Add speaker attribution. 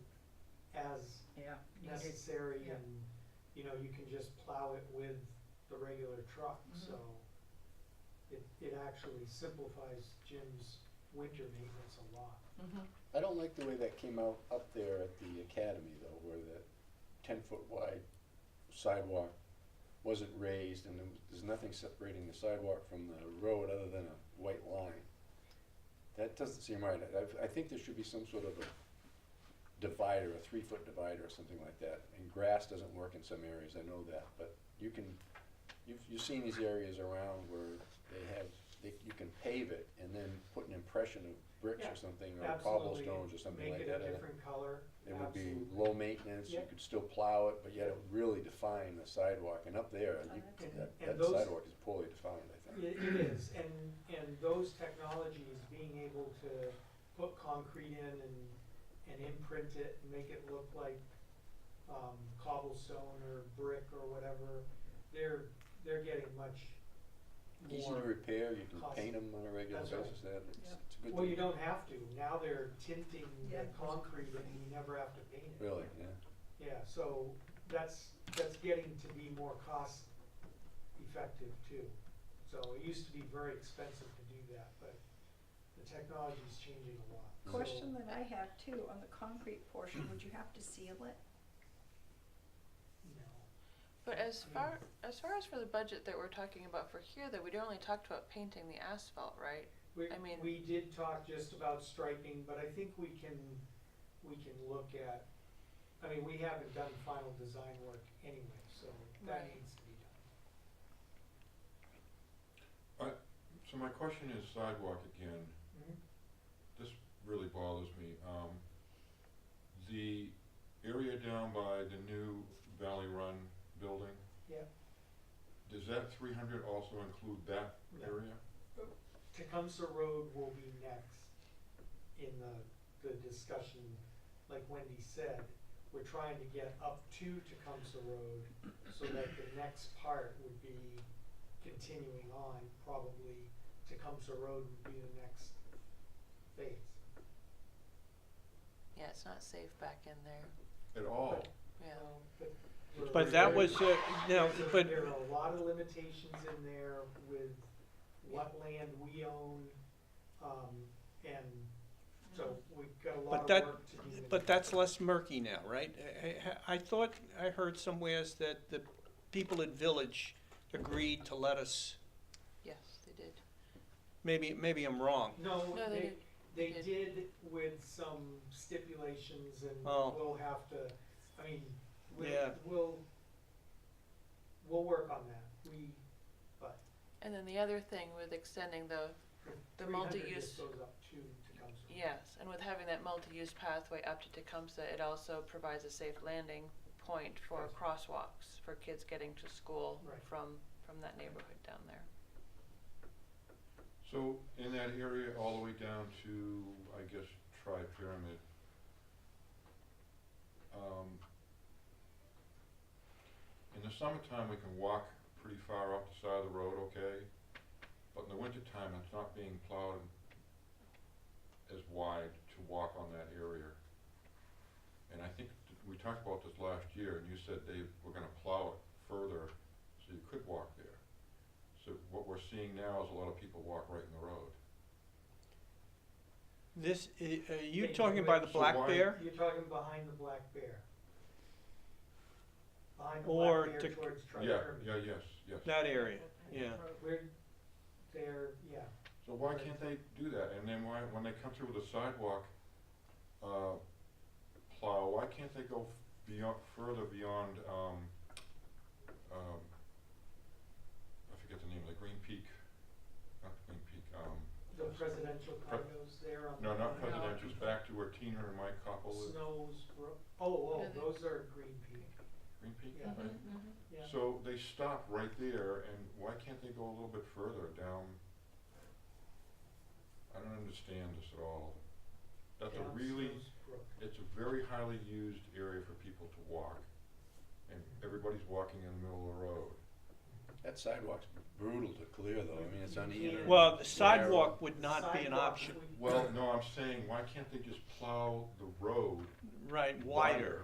Speaker 1: as
Speaker 2: yeah. you can do-
Speaker 1: necessary
Speaker 2: yeah.
Speaker 1: and, you know, you can just plow it with the regular truck,
Speaker 2: Mhm.
Speaker 1: so it, it actually simplifies Jim's winter maintenance a lot.
Speaker 2: Mhm.
Speaker 3: I don't like the way that came out up there at the academy though, where the ten foot wide sidewalk wasn't raised and there was- there's nothing separating the sidewalk from the road other than a white line. That doesn't seem right. I, I've- I think there should be some sort of a divider, a three foot divider or something like that. And grass doesn't work in some areas, I know that, but you can, you've, you've seen these areas around where they have, they, you can pave it and then put an impression of bricks
Speaker 1: Yeah.
Speaker 3: or something or
Speaker 1: Absolutely,
Speaker 3: cobblestones or something like
Speaker 1: Make it
Speaker 3: that.
Speaker 1: a
Speaker 3: in it.
Speaker 1: different color.
Speaker 3: It would be
Speaker 1: absolutely.
Speaker 3: low maintenance, you
Speaker 1: Yeah.
Speaker 3: could still plow it, but yet it would really define the sidewalk. And up there, you-
Speaker 2: that's
Speaker 1: good.
Speaker 3: that,
Speaker 1: And
Speaker 3: that
Speaker 1: those-
Speaker 3: sidewalk is poorly defined, I think.
Speaker 1: It, it is, and, and those technologies, being able to put concrete in and, and imprint it, and make it look like, um, cobblestone or brick or whatever, they're, they're getting much
Speaker 3: Easy to
Speaker 1: more.
Speaker 3: repair, you can
Speaker 1: cost-
Speaker 3: paint them on a regular
Speaker 1: That's right.
Speaker 3: basis, that, it's
Speaker 2: Yeah.
Speaker 3: it's a good thing.
Speaker 1: Well, you don't have to, now they're tinting
Speaker 2: Yeah.
Speaker 1: the concrete and you never have to paint it.
Speaker 3: Really, yeah.
Speaker 1: Yeah, so that's, that's getting to be more cost effective too. So it used to be very expensive to do that, but the technology's changing a lot. So-
Speaker 4: Question that I have too, on the concrete portion, would you have to seal it?
Speaker 1: No,
Speaker 5: But as far as far as for the budget that we're talking about for here, though, we only talked about painting the asphalt, right? I
Speaker 1: we,
Speaker 5: mean-
Speaker 1: we did talk just about striping, but I think we can, we can look at, I mean, we haven't done final design work anyway, so that
Speaker 5: Right.
Speaker 1: needs to be done.
Speaker 6: So my question is sidewalk again.
Speaker 1: Mhm.
Speaker 6: This really bothers me. Um, the area down by the new Valley Run building,
Speaker 1: Yeah,
Speaker 6: does that three hundred also include that
Speaker 1: No.
Speaker 6: area?
Speaker 1: Tecumseh Road will be next in the, the discussion, like Wendy said, we're trying to get up to Tecumseh Road so that the next part would be continuing on, probably Tecumseh Road would be the next phase.
Speaker 5: Yeah, it's not safe back in there.
Speaker 6: At all?
Speaker 5: Yeah.
Speaker 1: Um, But we're-
Speaker 7: But that was, uh, no,
Speaker 1: There's a-
Speaker 7: but,
Speaker 1: There are a lot of limitations in there with what land we own, um, and so
Speaker 5: Mm-hmm.
Speaker 1: we've got a
Speaker 7: But
Speaker 1: lot of
Speaker 7: that-
Speaker 1: work to do.
Speaker 7: but that's less murky now, right? I- I I thought, I heard somewheres that the people at Village agreed to let us,
Speaker 5: Yes, they did.
Speaker 7: maybe, maybe I'm wrong.
Speaker 1: No,
Speaker 5: No, they
Speaker 1: they,
Speaker 5: did.
Speaker 1: they
Speaker 5: They
Speaker 1: did with some stipulations and
Speaker 7: Oh.
Speaker 1: we'll have to, I mean, we'll,
Speaker 7: Yeah.
Speaker 1: we'll, we'll work on that. We, but
Speaker 5: And then the other thing with extending the The
Speaker 1: 300
Speaker 5: multi-use-
Speaker 1: just goes up to Tecumseh.
Speaker 5: yes, and with having that multi-use pathway up to Tecumseh, it also provides a safe landing point for
Speaker 1: Yes.
Speaker 5: crosswalks for kids getting to school
Speaker 1: Right.
Speaker 5: from from that neighborhood down there.
Speaker 6: So in that area, all the way down to, I guess, tri-pyramid, um, in the summertime, we can walk pretty far off the side of the road, okay? But in the wintertime, it's not being plowed as wide to walk on that area. And I think th- we talked about this last year, and you said they were gonna plow it further so you could walk there. So what we're seeing now is a lot of people walk right in the road.
Speaker 7: This, i- are
Speaker 1: They
Speaker 7: you talking
Speaker 1: do it.
Speaker 7: about the
Speaker 6: So
Speaker 7: Black
Speaker 6: why-
Speaker 7: Bear?
Speaker 1: You're talking behind the Black Bear. Behind the
Speaker 7: Or
Speaker 1: Black Bear
Speaker 7: to-
Speaker 1: towards
Speaker 6: Yeah,
Speaker 1: Tri-Termin.
Speaker 6: yeah, yes, yes.
Speaker 7: That area, yeah.
Speaker 1: We're, there, yeah,
Speaker 6: So why can't they do that? And then why, when they come through with a sidewalk, uh, plow, why can't they go f- beyond, further beyond, um, um, I forget the name of the Green Peak, not Green Peak, um,
Speaker 1: the presidential condos there on.
Speaker 6: no, not
Speaker 1: the-
Speaker 6: presidential, it's back to where Teen Hunter Mike Koppel is.
Speaker 1: Snows, Bro- oh,
Speaker 5: Yeah,
Speaker 1: oh,
Speaker 5: they-
Speaker 1: those are Green Peak,
Speaker 6: Green Peak,
Speaker 1: Yeah.
Speaker 6: right?
Speaker 1: yeah.
Speaker 6: So they stop right there, and why can't they go a little bit further down? I don't understand this at all. That's a
Speaker 1: down
Speaker 6: really,
Speaker 1: Snows Brook.
Speaker 6: it's a very highly used area for people to walk, and everybody's walking in the middle of the road.
Speaker 3: That sidewalk's brutal to clear though, I mean, it's uneven.
Speaker 7: Well, the
Speaker 3: narrow.
Speaker 7: sidewalk would not be an
Speaker 1: Sidewalk,
Speaker 7: option,
Speaker 1: we-
Speaker 6: Well, no, I'm saying, why can't they just plow the road
Speaker 7: right, wider,